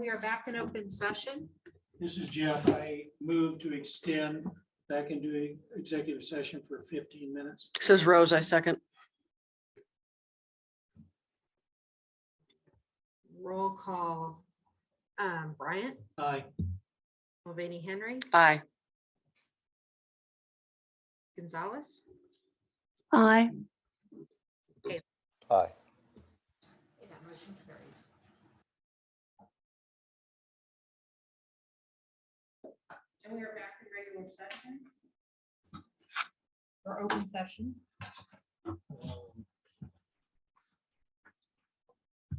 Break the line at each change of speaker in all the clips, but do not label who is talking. we are back in open session.
This is Jeff. I move to extend back into executive session for fifteen minutes.
Says Rose, I second.
Roll call. Um, Bryant,
Aye.
Mulvaney Henry,
Aye.
Gonzalez,
Aye.
Aye.
Okay, That motion carries. And we are back in regular session? Or open session?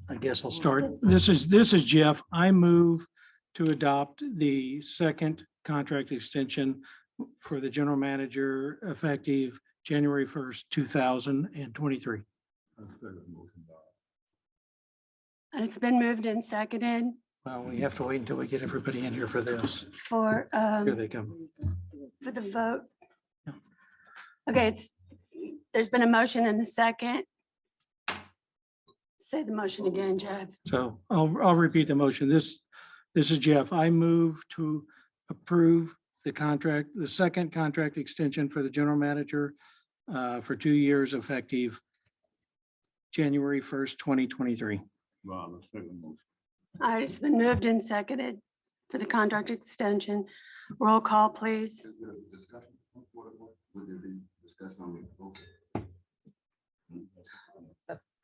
I guess I'll start. This is, this is Jeff. I move to adopt the second contract extension for the general manager effective January first, two thousand and twenty-three.
It's been moved and seconded
Well, we have to wait until we get everybody in here for this.
for,
Here
um,
they come.
for the vote.
Yeah.
Okay, it's, there's been a motion and a second. Say the motion again, Jeff.
So I'll, I'll repeat the motion. This, this is Jeff. I move to approve the contract, the second contract extension for the general manager uh, for two years effective January first, twenty twenty-three.
Well, let's take a motion.
All right, it's been moved and seconded for the contract extension. Roll call, please.
Is there a discussion? What- what- Would there be discussion on the vote?
Hmm.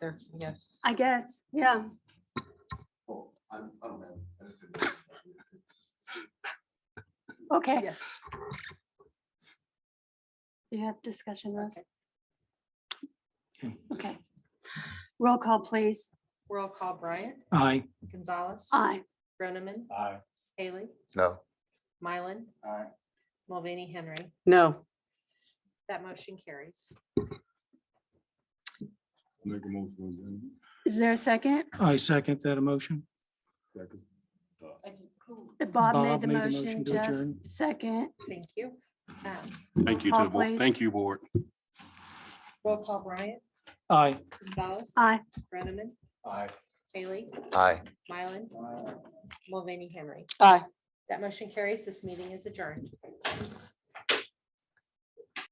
There, yes.
I guess, yeah.
Oh, I, I don't have, I just didn't.
Okay,
Yes.
you have discussion, Rose.
Okay.
Okay. Roll call, please.
Roll call Bryant,
Aye.
Gonzalez.
Aye.
Groneman,
Aye.
Haley,
No.
Mylan,
Aye.
Mulvaney, Henry.
No.
That motion carries.
Make a motion.
Is there a second?
I second that emotion.
we adjourn. Second.
Bob made the
made the
motion,
motion to
Jeff,
adjourn.
second.
Thank you. Um,
Thank you to
Roll call,
the board.
please.
Thank you, board.
Roll call Bryant,
Aye.
Gonzalez.
Aye.
Groneman,
Aye.
Haley,
Aye.
Mylan, Mulvaney, Henry.
Aye.
That motion carries. This meeting is adjourned.